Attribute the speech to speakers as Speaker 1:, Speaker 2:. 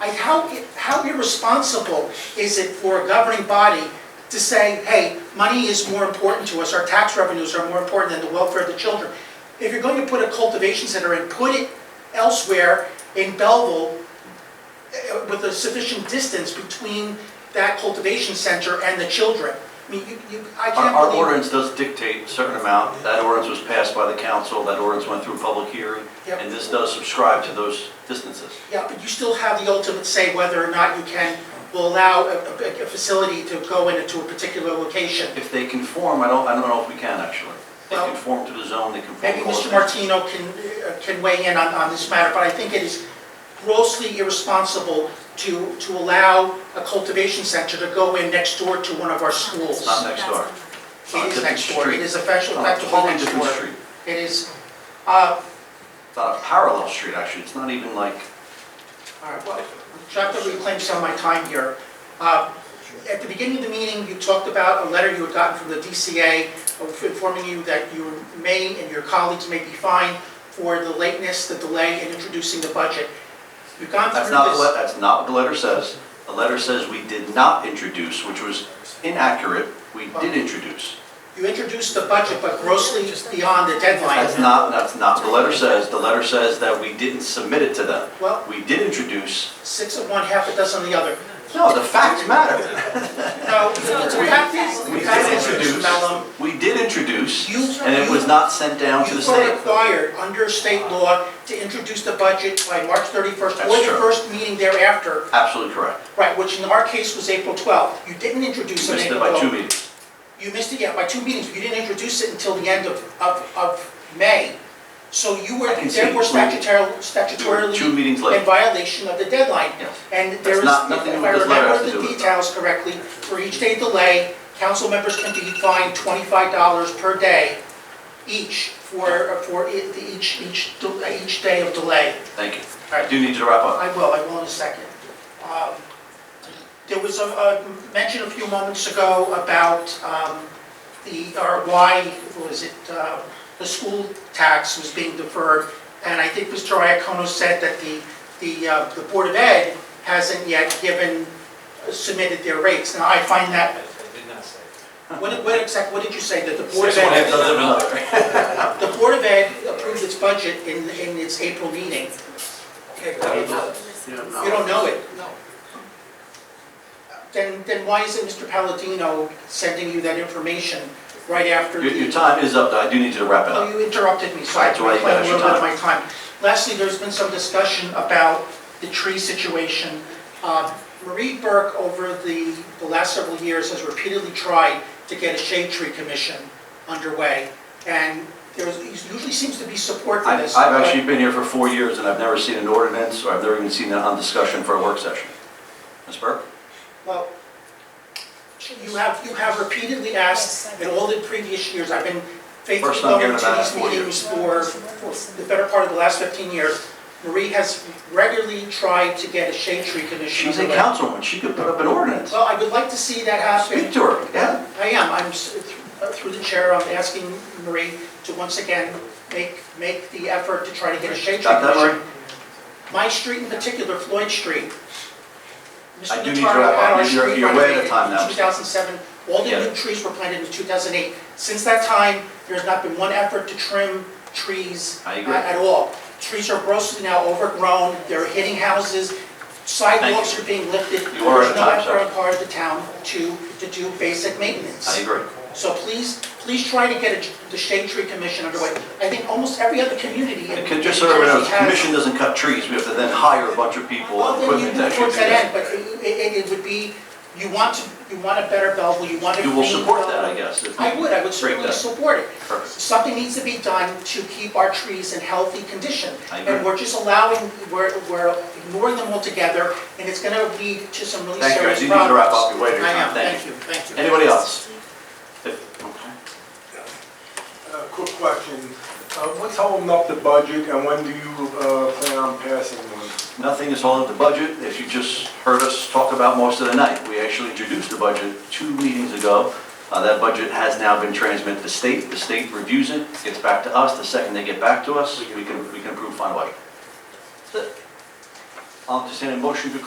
Speaker 1: Like, how, how irresponsible is it for a governing body to say, hey, money is more important to us, our tax revenues are more important than the welfare of the children? If you're going to put a cultivation center and put it elsewhere in Belleville eh, with a sufficient distance between that cultivation center and the children, I mean, you, you, I
Speaker 2: Our
Speaker 1: can't
Speaker 2: our
Speaker 1: believe.
Speaker 2: ordinance does dictate a certain amount. That ordinance was passed by the council, that ordinance went through public hearing,
Speaker 1: Yep.
Speaker 2: and this does subscribe to those distances.
Speaker 1: Yeah, but you still have the ultimate say whether or not you can, will allow a, a- a facility to go into a particular location.
Speaker 2: If they conform, I don't, I don't know if we can actually. They
Speaker 1: Well-
Speaker 2: conform to the zone, they conform
Speaker 1: Maybe
Speaker 2: to
Speaker 1: Mr.
Speaker 2: ordinance.
Speaker 1: Martino can, uh, can weigh in on, on this matter, but I think it is grossly irresponsible to, to allow a cultivation center to go in next door to one of our schools.
Speaker 2: It's not next door.
Speaker 1: It is next door, it is
Speaker 2: It's
Speaker 1: official,
Speaker 2: on a
Speaker 1: effectively
Speaker 2: totally
Speaker 1: next
Speaker 2: different
Speaker 1: door.
Speaker 2: street.
Speaker 1: It is, uh,
Speaker 2: It's on a parallel street, actually. It's not even like,
Speaker 1: all right, well, try to reclaim some of my time here. Uh, At the beginning of the meeting, you talked about a letter you had gotten from the DCA informing you that you may and your colleagues may be fined for the lateness, the delay in introducing the budget. You've gone through
Speaker 2: that's not, the
Speaker 1: this.
Speaker 2: le- that's not what the letter says. The letter says we did not introduce, which was inaccurate. We did introduce.
Speaker 1: You introduced the budget, but grossly beyond the
Speaker 2: That's
Speaker 1: deadline.
Speaker 2: not, that's not, the letter says, the letter says that we didn't submit it to them.
Speaker 1: Well-
Speaker 2: We did introduce,
Speaker 1: Six of one, half a dozen of the other.
Speaker 2: no, the facts matter.
Speaker 1: No, the fact is,
Speaker 2: We
Speaker 1: the fact
Speaker 2: did
Speaker 1: is, Mr.
Speaker 2: introduce,
Speaker 1: Mellon,
Speaker 2: we did introduce,
Speaker 1: You-
Speaker 2: and it was not sent down to the
Speaker 1: you were
Speaker 2: state.
Speaker 1: required under state law to introduce the budget by March 31st or
Speaker 2: That's
Speaker 1: the
Speaker 2: true.
Speaker 1: first meeting thereafter,
Speaker 2: Absolutely correct.
Speaker 1: right, which in our case was April 12th. You didn't introduce
Speaker 2: You
Speaker 1: it
Speaker 2: missed
Speaker 1: in
Speaker 2: it by two
Speaker 1: April.
Speaker 2: meetings.
Speaker 1: You missed it, yeah, by two meetings. You didn't introduce it until the end of, of, of May. So you were
Speaker 2: I can see
Speaker 1: therefore
Speaker 2: it. We-
Speaker 1: statutorily,
Speaker 2: We were
Speaker 1: statutorily
Speaker 2: two meetings
Speaker 1: in
Speaker 2: late.
Speaker 1: violation of the deadline.
Speaker 2: Yes.
Speaker 1: And there is, if
Speaker 2: not- nothing
Speaker 1: I
Speaker 2: with this letter has
Speaker 1: remember
Speaker 2: to do
Speaker 1: the
Speaker 2: with that.
Speaker 1: details correctly, for each day delay, council members can be fined twenty-five dollars per day each for, for e- each, each, de- each day of delay.
Speaker 2: Thank you.
Speaker 1: All
Speaker 2: I
Speaker 1: right.
Speaker 2: do need to wrap up.
Speaker 1: I will, I will in a second. Um, There was a, a mention a few moments ago about um, the, or why, what was it, uh, the school tax was being deferred, and I think Mr. Iacono said that the, the, uh, the Board of Ed hasn't yet given, uh, submitted their rates. Now, I find that,
Speaker 3: did not say.
Speaker 1: what, what exact, what did you say, that the Board of
Speaker 2: Six one half
Speaker 1: Ed,
Speaker 2: dozen of another.
Speaker 1: the Board of Ed approved its budget in, in its April meeting? You don't know it? No. Then, then why isn't Mr. Palladino sending you that information right after
Speaker 2: Your, your
Speaker 1: the...
Speaker 2: time is up, though. I do need you to wrap it
Speaker 1: Oh,
Speaker 2: up.
Speaker 1: you interrupted me, so I
Speaker 2: That's all right,
Speaker 1: reclaimed a
Speaker 2: that's your
Speaker 1: little bit of my time. Lastly, there's been some discussion about the tree situation. Uh, Marie Burke, over the, the last several years, has repeatedly tried to get a shade tree commission underway, and there's, usually seems to be support for
Speaker 2: I've,
Speaker 1: this.
Speaker 2: I've
Speaker 1: but-
Speaker 2: actually been here for four years, and I've never seen an ordinance, or I've never even seen that on discussion for a work session. Ms. Burke?
Speaker 1: Well, you have, you have repeatedly asked, in all the previous years, I've been faithfully
Speaker 2: First time
Speaker 1: going
Speaker 2: hearing
Speaker 1: to
Speaker 2: about it
Speaker 1: these
Speaker 2: in four
Speaker 1: meetings for, for the better part of the last 15 years. Marie has regularly tried to get a shade tree commission.
Speaker 2: She's a
Speaker 1: underway.
Speaker 2: councilwoman. She could put up an ordinance.
Speaker 1: Well, I would like to see that happen.
Speaker 2: Speak to her, yeah.
Speaker 1: I am, I'm, s- uh, through the chair, I'm asking Marie to once again make, make the effort to try to get a shade tree
Speaker 2: Got that, Marie?
Speaker 1: commission. My street in particular, Floyd Street.
Speaker 2: I
Speaker 1: Mr.
Speaker 2: do need
Speaker 1: Notaro
Speaker 2: your-
Speaker 1: had our
Speaker 2: you're-
Speaker 1: street
Speaker 2: you're way
Speaker 1: renovated
Speaker 2: ahead of time
Speaker 1: in
Speaker 2: now.
Speaker 1: 2007, all the
Speaker 2: Yeah.
Speaker 1: new trees were planted in 2008. Since that time, there has not been one effort to trim trees
Speaker 2: I
Speaker 1: a-
Speaker 2: agree.
Speaker 1: at all. Trees are grossly now overgrown, they're hitting houses, sidewalks
Speaker 2: Thank
Speaker 1: are
Speaker 2: you.
Speaker 1: being lifted.
Speaker 2: You are
Speaker 1: There's
Speaker 2: at
Speaker 1: no
Speaker 2: time,
Speaker 1: effort
Speaker 2: sir.
Speaker 1: on part of the town to, to do basic maintenance.
Speaker 2: I agree.
Speaker 1: So please, please try to get a- the shade tree commission underway. I think almost every other community in
Speaker 2: And
Speaker 1: in
Speaker 2: could
Speaker 1: New
Speaker 2: just
Speaker 1: Jersey
Speaker 2: so everyone knows, the
Speaker 1: has.
Speaker 2: commission doesn't cut trees, we have to then hire a bunch of people
Speaker 1: Well,
Speaker 2: and
Speaker 1: then you
Speaker 2: equipment to
Speaker 1: move
Speaker 2: actually
Speaker 1: towards
Speaker 2: do
Speaker 1: that end,
Speaker 2: that.
Speaker 1: but it, it it would be, you want to, you want a better Belleville, you want a
Speaker 2: You will
Speaker 1: green
Speaker 2: support that, I
Speaker 1: Belleville.
Speaker 2: guess. if
Speaker 1: uh, I
Speaker 2: we
Speaker 1: would, I would
Speaker 2: break
Speaker 1: certainly
Speaker 2: that.
Speaker 1: support it.
Speaker 2: Perfect.
Speaker 1: Something needs to be done to keep our trees in healthy condition.
Speaker 2: I agree.
Speaker 1: And we're just allowing, we're, we're ignoring them altogether, and it's gonna lead to some really
Speaker 2: Thank you, I
Speaker 1: serious
Speaker 2: do
Speaker 1: problems.
Speaker 2: need to wrap up, you're way over your
Speaker 1: I
Speaker 2: time,
Speaker 1: am,
Speaker 2: thank
Speaker 1: thank
Speaker 2: you.
Speaker 1: you, thank you.
Speaker 2: Anybody else? If- okay.
Speaker 4: Uh, Quick question. Uh, What's holding up the budget and when do you uh, plan on passing one?
Speaker 2: Nothing is holding up the budget, as you just heard us talk about most of the night. We actually introduced the budget two meetings ago. Uh, That budget has now been transmitted to state, the state reviews it, gets back to us, the second they get back to us, we can, we can approve final budget. That's it. I'll just entertain a motion to